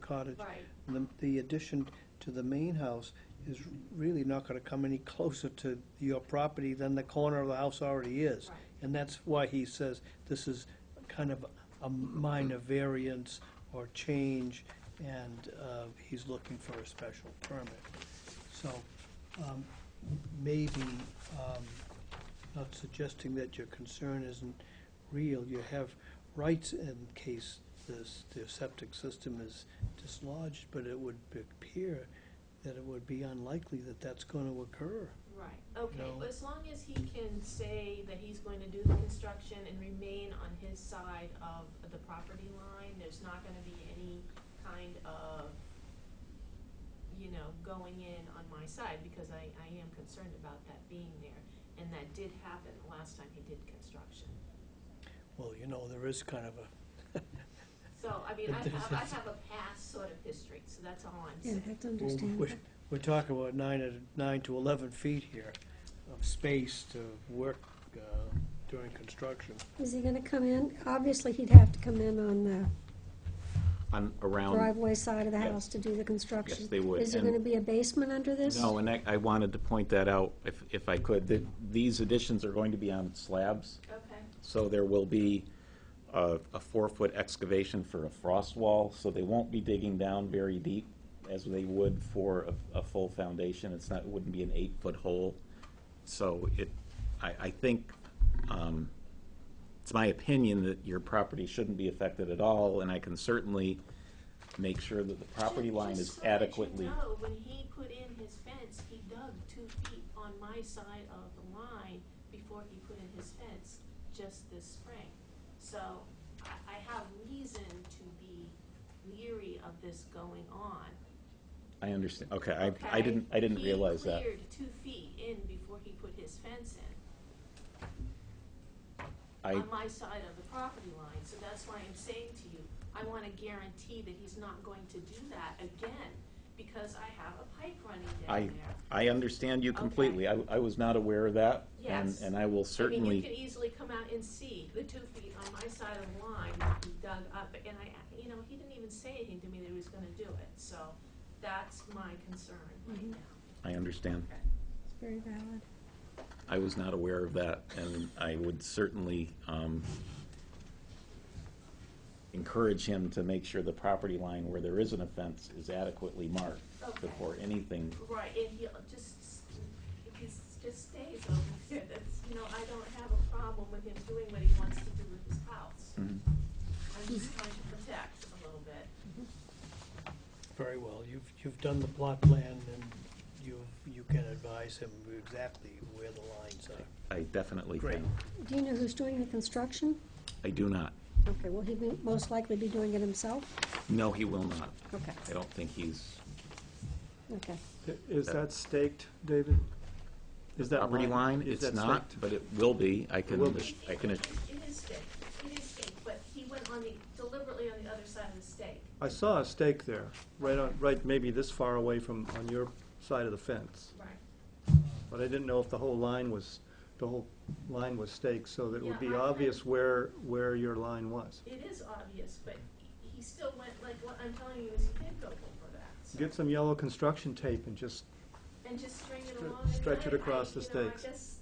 cottage. Right. The, the addition to the main house is really not gonna come any closer to your property than the corner of the house already is. Right. And that's why he says this is kind of a minor variance or change, and uh, he's looking for a special permit. So um, maybe, um, not suggesting that your concern isn't real, you have rights in case this, the septic system is dislodged, but it would appear that it would be unlikely that that's going to occur. Right, okay, No. well, as long as he can say that he's going to do the construction and remain on his side of the property line, there's not gonna be any kind of, you know, going in on my side, because I, I am concerned about that being there, and that did happen the last time he did construction. Well, you know, there is kind of a, So, I mean, I But have, I there's- have a past sort of history, so that's all I'm Yeah, saying. that's understandable. we're, we're talking about nine, to- nine to 11 feet here of space to work uh, during construction. Is he gonna come in? Obviously, he'd have to come in on the on, around, driveway side of the Yes. house to do the construction. Yes, they would, Is there and- gonna be a basement under this? no, and I, I wanted to point that out, if, if I could, that these additions are going to be on slabs, Okay, so there will be a, a four-foot excavation for a frost wall, so they won't be digging down very deep as they would for a, a full foundation, it's not, it wouldn't be an eight-foot hole. So it, I, I think, um, it's my opinion that your property shouldn't be affected at all, and I can certainly make sure that the property Ju- line just is so that you adequately. know, when he put in his fence, he dug two feet on my side of the line before he put in his fence just this spring. So I, I have reason to be leery of this going on. I understand, okay, I, I okay? didn't, I didn't realize that. He cleared two feet in before he put his fence in, I, on my side of the property line. So that's why I'm saying to you, I want to guarantee that he's not going to do that again because I have a pipe running I, down there. I understand you completely, I, I was not aware of that, and, Yes. and I I will mean, you certainly, can easily come out and see the two feet on my side of the line be dug up, and I, you know, he didn't even say anything to me that he was gonna do it, so that's my concern right Mhm. now. I understand. It's very valid. I was not aware of that, and I would certainly um, encourage him to make sure the property line where there is an offense is adequately marked Okay. before anything. Right, and he'll just, if he s- just stays over there, that's, you know, I don't have a problem with him doing what he wants to do with his house. Hmm. I'm just trying to protect a little bit. Very well, you've, you've done the plot plan, and you, you can advise him exactly where the lines are. I definitely Great. can. Do you know who's doing the construction? I do not. Okay, will he be, most likely be doing it himself? No, he will not. Okay, I don't think he's, okay. I- Is Yeah. that staked, David? Is that Uh, property line, is it's that not, staked? but it will be. I can, will be. I can, It is staked, it is staked, but he went on the, deliberately on the other side of the stake. I saw a stake there, right on, right, maybe this far away from, on your side of the fence. Right. But I didn't know if the whole line was, the whole line was staked, so that it would Yeah, be I- obvious where, where your line was. It is obvious, but he still went, like, what I'm telling you is he did go over that. so- Get some yellow construction tape and just, And just string it stre- along. and stretch it I- across I- the you know, I stakes. guess,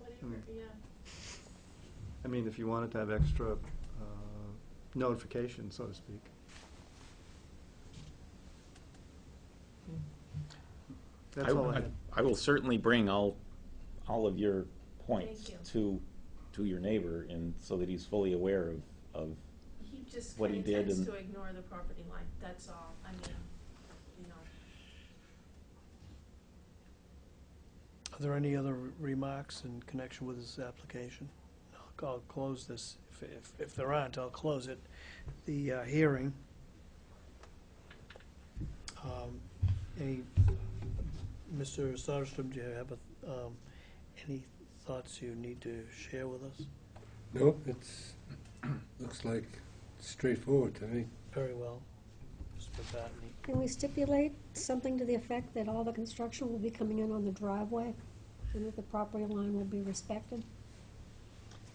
whatever, Mm. yeah. I mean, if you wanted to have extra uh, notification, so to speak. I, That's all I I- had. I will certainly bring all, all of your Thank points you. to, to your neighbor, and so that he's fully aware of, of He just What kinda he did tends and- to ignore the property line, that's all, I mean, you know. Are there any other remarks in connection with this application? I'll, I'll close this, if, if, if there aren't, I'll close it, the uh, hearing. Um, Any, Mr. Soderstrom, do you have, a- um, any thoughts you need to share with us? No, it's, looks like straightforward to me. Very well, Mr. Batney. Can we stipulate something to the effect that all the construction will be coming in on the driveway and that the property line will be respected?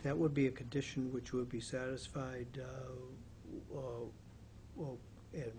That would be a condition which would be satisfied, uh, uh, well, and